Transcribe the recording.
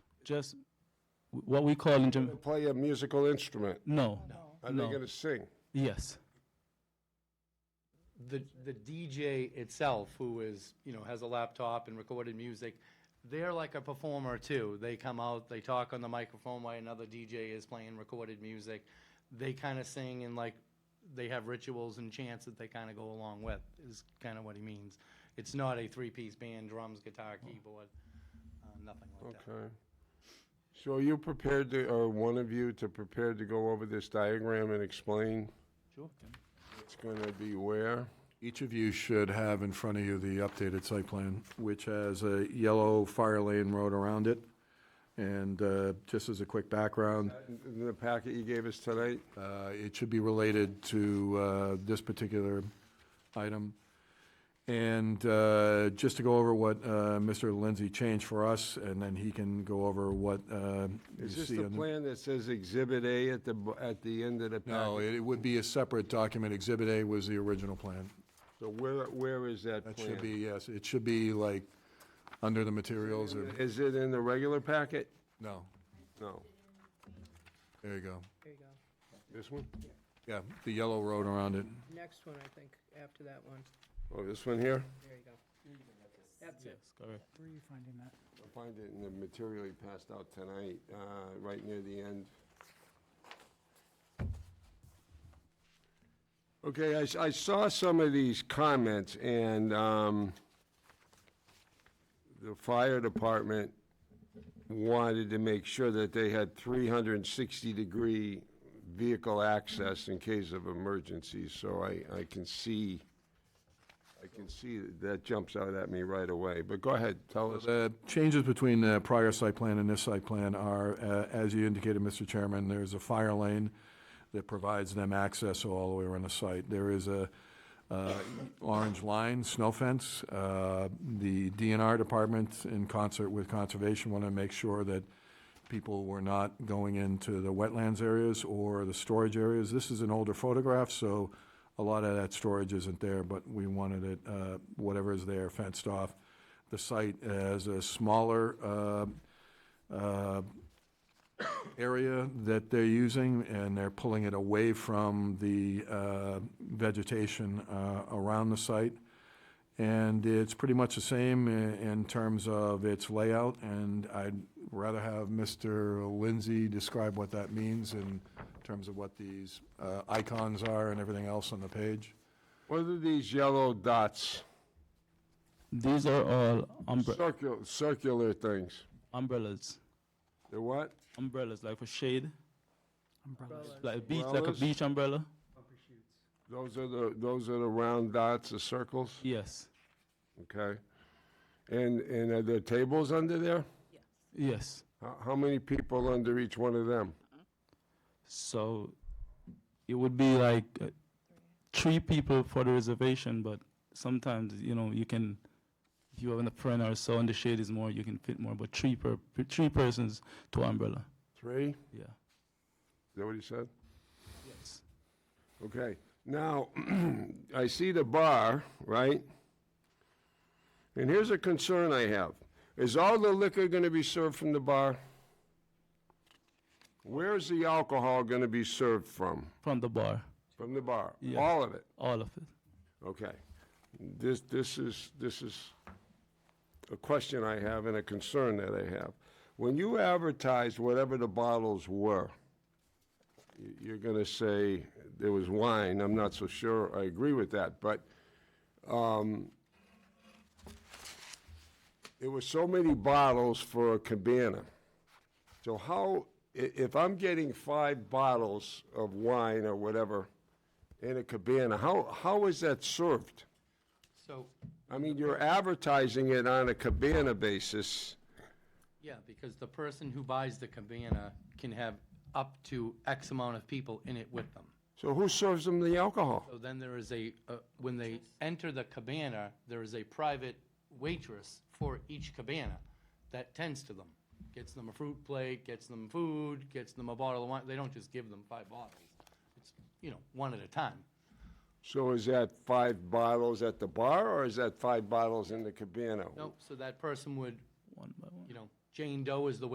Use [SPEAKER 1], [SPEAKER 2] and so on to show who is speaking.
[SPEAKER 1] just what we call in Jam-
[SPEAKER 2] Play a musical instrument.
[SPEAKER 1] no,
[SPEAKER 2] Are they
[SPEAKER 1] no,
[SPEAKER 2] gonna sing?
[SPEAKER 1] yes,
[SPEAKER 3] the, the DJ itself, who is, you know, has a laptop and recorded music, they're like a performer too. They come out, they talk on the microphone while another DJ is playing recorded music. They kind of sing and like, they have rituals and chants that they kind of go along with, is kind of what he means. It's not a three-piece band, drums, guitar, keyboard, uh, nothing like that.
[SPEAKER 2] Okay. So are you prepared to, or one of you to prepare to go over this diagram and explain
[SPEAKER 3] Sure.
[SPEAKER 2] what's gonna be where?
[SPEAKER 4] Each of you should have in front of you the updated site plan, which has a yellow fire lane road around it. And uh, just as a quick background,
[SPEAKER 2] In the packet you gave us tonight?
[SPEAKER 4] uh, it should be related to uh, this particular item. And uh, just to go over what uh, Mr. Lindsay changed for us, and then he can go over what uh, you
[SPEAKER 2] Is this
[SPEAKER 4] see
[SPEAKER 2] the
[SPEAKER 4] on the...
[SPEAKER 2] plan that says Exhibit A at the, bo- at the end of the packet?
[SPEAKER 4] No, it would be a separate document. Exhibit A was the original plan.
[SPEAKER 2] So where, where is that plan?
[SPEAKER 4] That should be, yes, it should be like under the materials or,
[SPEAKER 2] Is it in the regular packet?
[SPEAKER 4] no,
[SPEAKER 2] No.
[SPEAKER 4] there you go.
[SPEAKER 5] There you go.
[SPEAKER 2] This one?
[SPEAKER 4] Yeah, the yellow road around it.
[SPEAKER 5] Next one, I think, after that one.
[SPEAKER 2] Oh, this one here?
[SPEAKER 5] There you go. That's
[SPEAKER 1] yes,
[SPEAKER 5] it.
[SPEAKER 1] correct.
[SPEAKER 6] Where are you finding that?
[SPEAKER 2] I find it in the material you passed out tonight, uh, right near the end. Okay, I s- I, saw some of these comments, and um, the fire department wanted to make sure that they had 360-degree vehicle access in case of emergencies, so I, I can see, I can see that jumps out at me right away. But go ahead, tell us.
[SPEAKER 4] The uh, changes between the prior site plan and this site plan are, uh, as you indicated, Mr. Chairman, there's a fire lane that provides them access all the way around the site. There is a uh, orange line, snow fence. Uh, The DNR department, in concert with Conservation, want to make sure that people were not going into the wetlands areas or the storage areas. This is an older photograph, so a lot of that storage isn't there, but we wanted it, uh, whatever is there fenced off. The site has a smaller uh, uh, area that they're using, and they're pulling it away from the uh, vegetation uh, around the site. And it's pretty much the same in, in terms of its layout, and I'd rather have Mr. Lindsay describe what that means in terms of what these uh, icons are and everything else on the page.
[SPEAKER 2] What are these yellow dots?
[SPEAKER 1] These are all umbre-
[SPEAKER 2] Circular, circular things.
[SPEAKER 1] umbrellas,
[SPEAKER 2] They're what?
[SPEAKER 1] umbrellas like for shade,
[SPEAKER 6] Umbrellas.
[SPEAKER 1] like a beach, like a
[SPEAKER 2] Umbrellas?
[SPEAKER 1] beach umbrella.
[SPEAKER 2] Those are the, those are the round dots, the circles,
[SPEAKER 1] Yes,
[SPEAKER 2] okay? And, and are there tables under there?
[SPEAKER 1] yes.
[SPEAKER 2] How, how many people under each one of them?
[SPEAKER 1] So it would be like uh, three people for the reservation, but sometimes you know you can, if you have a friend or so, and the shade is more, you can fit more. But three per three persons to umbrella.
[SPEAKER 2] Three? Is
[SPEAKER 1] Yeah.
[SPEAKER 2] that what he said?
[SPEAKER 1] Yes.
[SPEAKER 2] Okay, now, I see the bar, right? And here's a concern I have. Is all the liquor gonna be served from the bar? Where's the alcohol gonna be served from?
[SPEAKER 1] From the bar,
[SPEAKER 2] From the bar?
[SPEAKER 1] Yeah.
[SPEAKER 2] All of it?
[SPEAKER 1] all of it.
[SPEAKER 2] Okay. This, this is, this is a question I have and a concern that I have. When you advertised whatever the bottles were, y- you're gonna say there was wine, I'm not so sure, I agree with that, but, um, there were so many bottles for a cabana. So how, i- if I'm getting five bottles of wine or whatever in a cabana, how, how is that served?
[SPEAKER 3] So,
[SPEAKER 2] I mean, you're advertising it on a cabana basis.
[SPEAKER 3] yeah, because the person who buys the cabana can have up to X amount of people in it with them.
[SPEAKER 2] So who serves them the alcohol?
[SPEAKER 3] So then there is a, uh, when they enter the cabana, there is a private waitress for each cabana that tends to them. Gets them a fruit plate, gets them food, gets them a bottle of wine. They don't just give them five bottles. It's, you know, one at a time.
[SPEAKER 2] So is that five bottles at the bar, or is that five bottles in the cabana?
[SPEAKER 3] No, so that person would,
[SPEAKER 1] One by one.
[SPEAKER 3] you know, Jane Doe is the